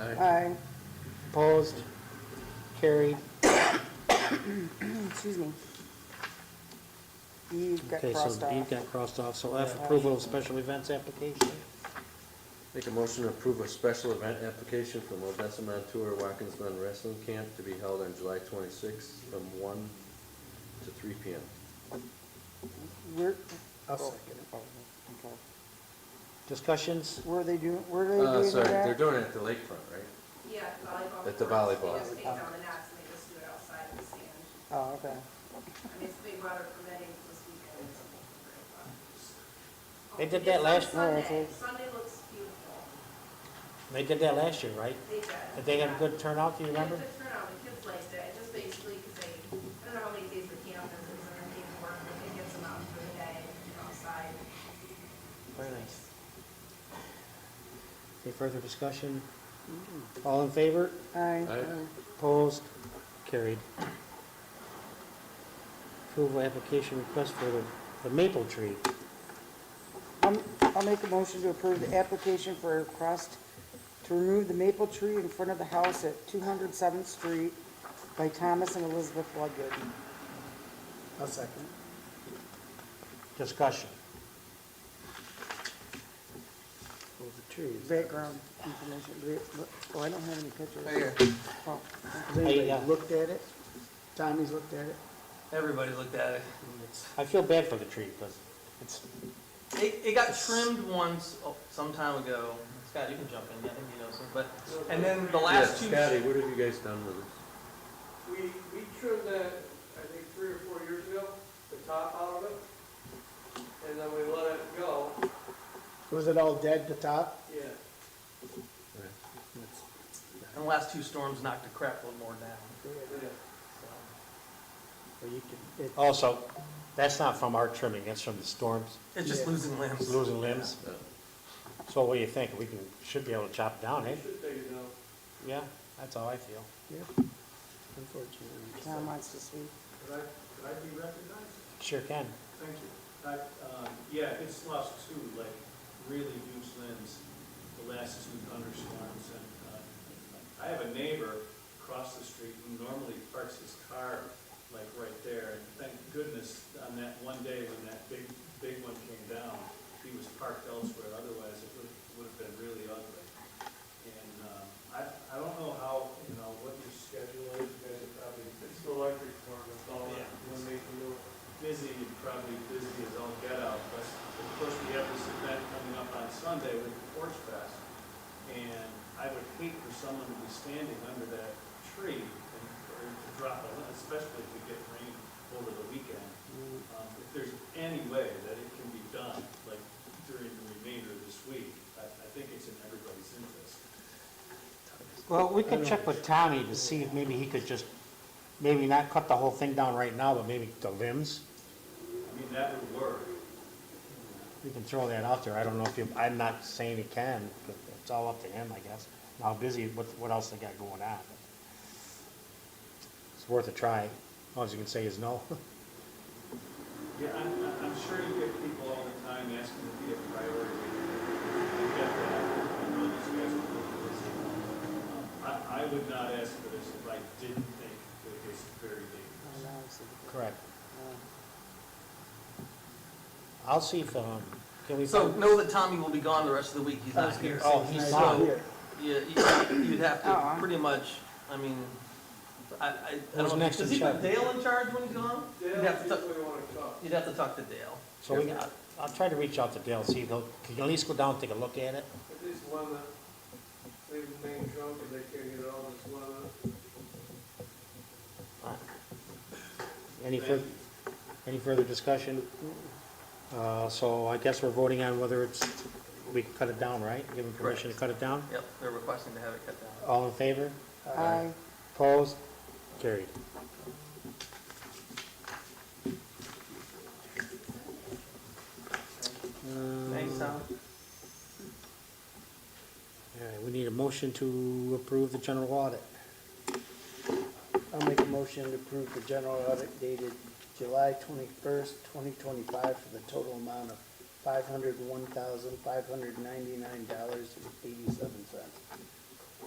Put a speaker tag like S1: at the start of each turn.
S1: Aye.
S2: Opposed? Carried.
S1: Hmm, Excuse me. E got
S2: Okay, so
S1: crossed
S2: D
S1: off.
S2: got crossed off, so F, approval of special Uh, events application.
S3: Make a motion to approve a special event application from Odessa Montour Watkins Glen Wrestling Camp to be held on July 26th from 1 to 3 p.m.
S1: Where,
S2: I'll second Discussions?
S1: where are they doing, where are
S3: Uh,
S1: they doing
S3: sorry,
S1: that?
S3: they're doing it at the lakefront, right?
S4: Yeah, volleyball.
S3: At the
S4: courts.
S3: volleyball.
S4: They just take down the nets and they just do it outside in the sand.
S1: Oh, okay.
S4: I mean, it's big weather permitting this weekend. it's great weather.
S2: They did that last-
S4: It's
S1: Oh,
S4: on
S1: that's
S4: Sunday,
S1: it.
S4: Sunday looks beautiful.
S2: They did that last year, right?
S4: They did.
S2: Did they have a
S4: yeah.
S2: good turnout, do you
S4: They had
S2: remember?
S4: good turnout, the kids liked it, It just basically, because they, I don't know how many days the camp is, it's their paperwork, but it gets them out for the day, you know, outside.
S2: Very nice. Any further discussion? All in favor?
S1: Aye.
S3: Aye.
S2: Opposed? Carried. Approval application request for the, the maple tree.
S1: I'm- Um, I'll make a motion to approve the application for a request to remove the maple tree in front of the house at 207th Street by Thomas and Elizabeth Ludgood.
S2: A second. Discussion. Move the tree.
S1: Background information, Do we- oh, I don't have any pictures. Oh,
S2: Has anybody
S5: looked at it? Tommy's looked at it?
S6: Everybody looked at it.
S2: I feel bad for the tree, because it's,
S6: It, it got trimmed once, oh, some time ago. Scott, you can jump in, I think you know some, but, and then the
S3: Yeah,
S6: last two.
S3: Scotty, what have you guys done with it?
S7: We, we trimmed that, I think, three or four years ago, the top out of it, and then we let it go,
S5: Was it all dead to top?
S7: yeah.
S6: And the last two storms knocked a crap load more down.
S7: yeah.
S6: so.
S5: Or you could, it,
S2: also, Oh, that's not from our trimming, that's from the storms,
S6: It's just
S5: Yeah.
S6: losing limbs.
S2: losing limbs.
S3: Uh,
S2: So what do you think? We can, should be able to chop it down, eh?
S7: We should take it down.
S2: Yeah, that's how I feel.
S5: yeah, unfortunately.
S1: Tom wants to speak.
S8: Could I, could I be recognized?
S2: Sure can.
S8: Thank you. I, um, yeah, it's lost two, like, really huge limbs, the last two thunderstorms, and, uh, I have a neighbor across the street who normally parks his car, like, right there, and thank goodness, on that one day when that big, big one came down, he was parked elsewhere, otherwise it would, would have been really ugly. And, um, I, I don't know how, you know, what your schedule is, you guys are probably
S7: It's the electric farm, it's all that, when they can do it.
S8: busy, probably busy as all get out, but of course, we have this event coming up on Sunday with the Porch Fest, and I would hate for someone to be standing under that tree and, or to drop a, limb, especially if we get rain over the weekend. Um, If there's any way that it can be done, like during the remainder of this week, I, I think it's in everybody's interest.
S2: Well, we could check with Tommy to see if maybe he could just, maybe not cut the whole thing down right now, but maybe the limbs.
S8: I mean, that would work.
S2: We can throw that out there. I don't know if you, I'm not saying he can, but it's all up to him, I guess. and How busy, what, what else they got going on. It's worth a try. All you can say is no.
S8: Yeah, I'm, I'm- I'm sure you get people all the time asking to be a priority. I get that. I know these guys are really busy. Um, I, I would not ask for this if I didn't think that it's very
S1: Oh,
S8: dangerous.
S1: no, it's the-
S2: Correct.
S1: no.
S2: I'll see if, um, can we?
S6: So know that Tommy will be gone the rest of the week. He's not here.
S2: Oh, he's
S6: So,
S2: not
S5: here.
S6: Yeah, you- you'd have
S1: Oh.
S6: to pretty much, I mean, I, I, I
S2: Who's
S6: don't know.
S2: next
S6: Does
S2: in
S6: he put
S2: charge?
S6: Dale in charge when he's gone? You'd
S7: Dale,
S6: have to
S7: see
S6: talk,
S7: if we wanna cut.
S6: you'd have to talk to Dale.
S2: So we, I'll- I'll try to reach out to Dale, see if he'll, can you at least go down and take a look at it?
S7: At least one that, leave the main trunk, if they can't get it all, just one of them.
S2: Any fur, any further discussion? Uh, so I guess we're voting on whether it's, we can cut it down, right? Give him permission to cut it down?
S6: Yep, they're requesting to have it cut down.
S2: All in favor?
S1: Aye.
S2: Opposed? Carried. Uh,
S6: Thanks, Tom.
S2: All right, we need a motion to approve the general audit.
S5: I'll make a motion to approve the general audit dated July twenty-first, twenty twenty-five for the total amount of five hundred one thousand, five hundred ninety-nine dollars and eighty-seven cents.